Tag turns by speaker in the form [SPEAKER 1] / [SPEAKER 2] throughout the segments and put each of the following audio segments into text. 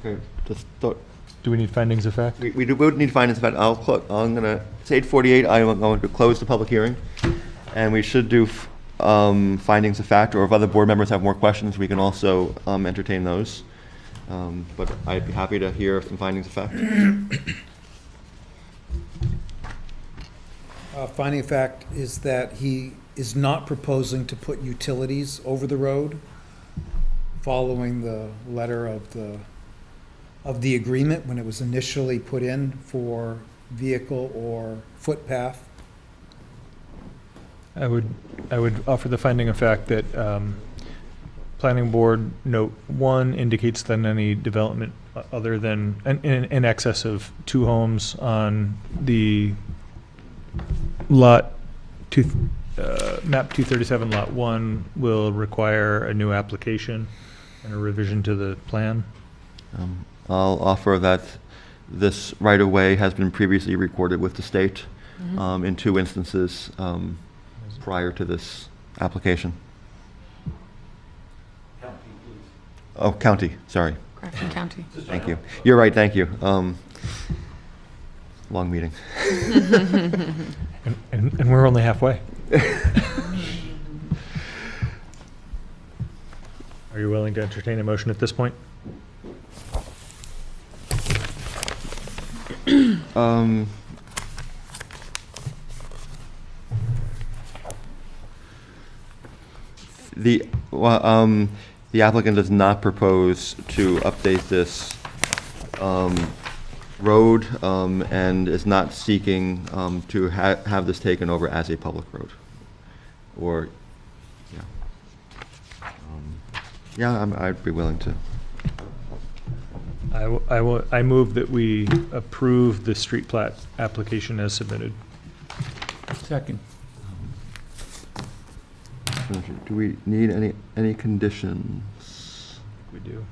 [SPEAKER 1] Okay, Just thought,
[SPEAKER 2] Do we need findings of fact?
[SPEAKER 1] we, we do, we would need findings, but I'll, clo- I'm gonna, it's eight forty-eight, I am going to close the public hearing. And we should do, f- um, findings of fact, or if other board members have more questions, we can also, um, entertain those. Um, but I'd be happy to hear some findings of fact.
[SPEAKER 3] Uh, Finding of fact is that he is not proposing to put utilities over the road, following the letter of the, of the agreement when it was initially put in for vehicle or footpath.
[SPEAKER 2] I would, I would offer the finding of fact that um, planning board note one indicates that any development o- other than, in- in in excess of two homes on the lot, two, uh, map 237, lot one, will require a new application and a revision to the plan.
[SPEAKER 1] Um, I'll offer that this right-of-way has been previously recorded with the state, um, in two instances, um, prior to this application. Oh, county, sorry.
[SPEAKER 4] Grafton County.
[SPEAKER 1] Thank you. You're right, thank you. Um, Long meeting.
[SPEAKER 2] And- And, and we're only halfway. Are you willing to entertain a motion at this point?
[SPEAKER 1] Um, The, well, um, the applicant does not propose to update this um, road um, and is not seeking um, to ha- have this taken over as a public road. Or, yeah. Um, Yeah, I'm- I'd be willing to.
[SPEAKER 2] I, w- I w- I move that we approve the street plat application as submitted.
[SPEAKER 5] Second.
[SPEAKER 1] Do we need any, any conditions?
[SPEAKER 2] We do.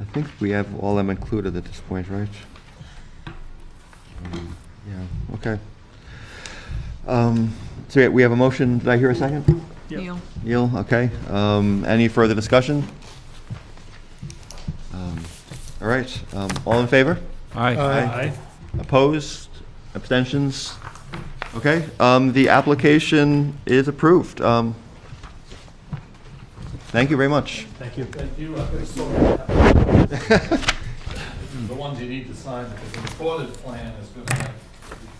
[SPEAKER 1] I think we have all them included at this point, right? Um, Yeah, okay. Um, So yeah, we have a motion, did I hear a second?
[SPEAKER 2] Yep.
[SPEAKER 4] Neil.
[SPEAKER 1] Neil, okay. Um, Any further discussion? Um, All right, um, all in favor?
[SPEAKER 5] Aye.
[SPEAKER 2] Aye.
[SPEAKER 1] Opposed? Abstentions? Okay, um, the application is approved. Um, Thank you very much.
[SPEAKER 2] Thank you.
[SPEAKER 6] The ones you need to sign, because the recorded plan is gonna have,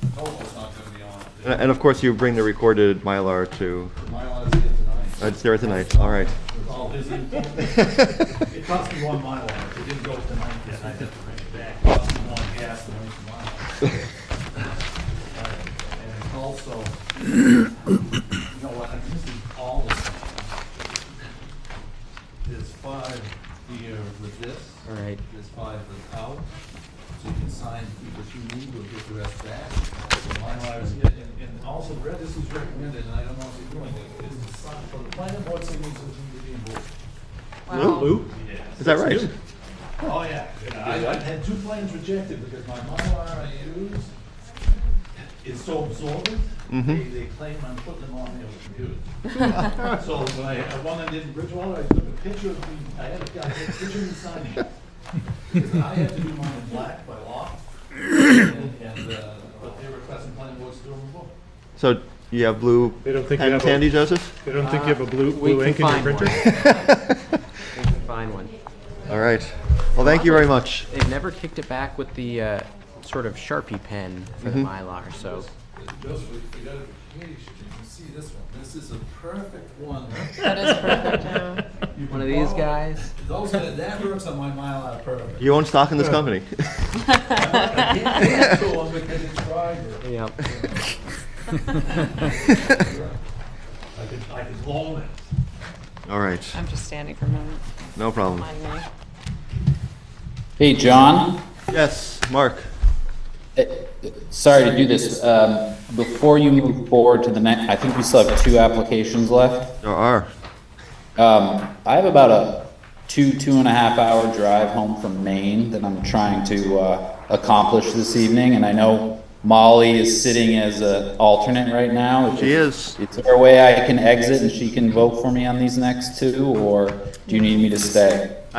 [SPEAKER 6] the total's not gonna be on it.
[SPEAKER 1] And and of course, you bring the recorded Mylar to,
[SPEAKER 6] The Mylar's here tonight.
[SPEAKER 1] Uh, it's there tonight, all right.
[SPEAKER 6] It's all his input. It cost me one Mylar, it didn't go tonight, yet I had to bring it back, It cost me one gas and one Mylar. Uh, And also, you know what, I'm missing all of them. There's five here with this.
[SPEAKER 5] All right.
[SPEAKER 6] There's five without, so you can sign what you need, we'll get the rest back. So my lives, and, and also, Brad, this is recommended, and I don't know if you're doing it, is to sign for the planning board signatures in the deed board.
[SPEAKER 1] Is that right?
[SPEAKER 6] Oh, yeah, I, I've had two plans rejected because my Mylar I use is so absorbent, they, they claim I'm putting them on their computer. So when I, I- one I did in Bridgewater, I took a picture of me, I had a guy take a picture of me signing it. Because I have to do mine in black by law, and, and, uh, but they're requesting planning boards to do them in blue.
[SPEAKER 1] So you have blue
[SPEAKER 2] They don't think you
[SPEAKER 1] pen
[SPEAKER 2] have, a-
[SPEAKER 1] candy, Joseph?
[SPEAKER 2] they don't think you have a blue,
[SPEAKER 5] We
[SPEAKER 2] blue ink
[SPEAKER 5] can
[SPEAKER 2] in your
[SPEAKER 5] find one.
[SPEAKER 2] printer?
[SPEAKER 5] We can find one.
[SPEAKER 1] All right. Well, thank you very much.
[SPEAKER 5] They've never kicked it back with the uh, sort of Sharpie pen for the
[SPEAKER 2] Mm-hmm.
[SPEAKER 5] Mylar, so.
[SPEAKER 6] Joseph, you got a page, you can see this one, this is a perfect one.
[SPEAKER 4] That is perfect, yeah.
[SPEAKER 6] You
[SPEAKER 5] One of
[SPEAKER 6] can
[SPEAKER 5] these
[SPEAKER 6] borrow-
[SPEAKER 5] guys.
[SPEAKER 6] Those, that that works on my Mylar perfect.
[SPEAKER 1] You own stock in this company.
[SPEAKER 6] Yeah, so I'm gonna get it tried, or
[SPEAKER 5] Yep.
[SPEAKER 6] I could, I could loan it.
[SPEAKER 1] All right,
[SPEAKER 4] I'm just standing for a moment.
[SPEAKER 1] no problem.
[SPEAKER 4] Mind me.
[SPEAKER 7] Hey, John,
[SPEAKER 1] Yes, Mark.
[SPEAKER 7] sorry to do this. Um, Before you move forward to the next, I think we still have two applications left.
[SPEAKER 1] There are.
[SPEAKER 7] Um, I have about a two, two and a half hour drive home from Maine that I'm trying to uh, accomplish this evening, and I know Molly is sitting as an alternate right now. If
[SPEAKER 1] She is.
[SPEAKER 7] Is there a way I can exit and she can vote for me on these next two, or do you need me to stay?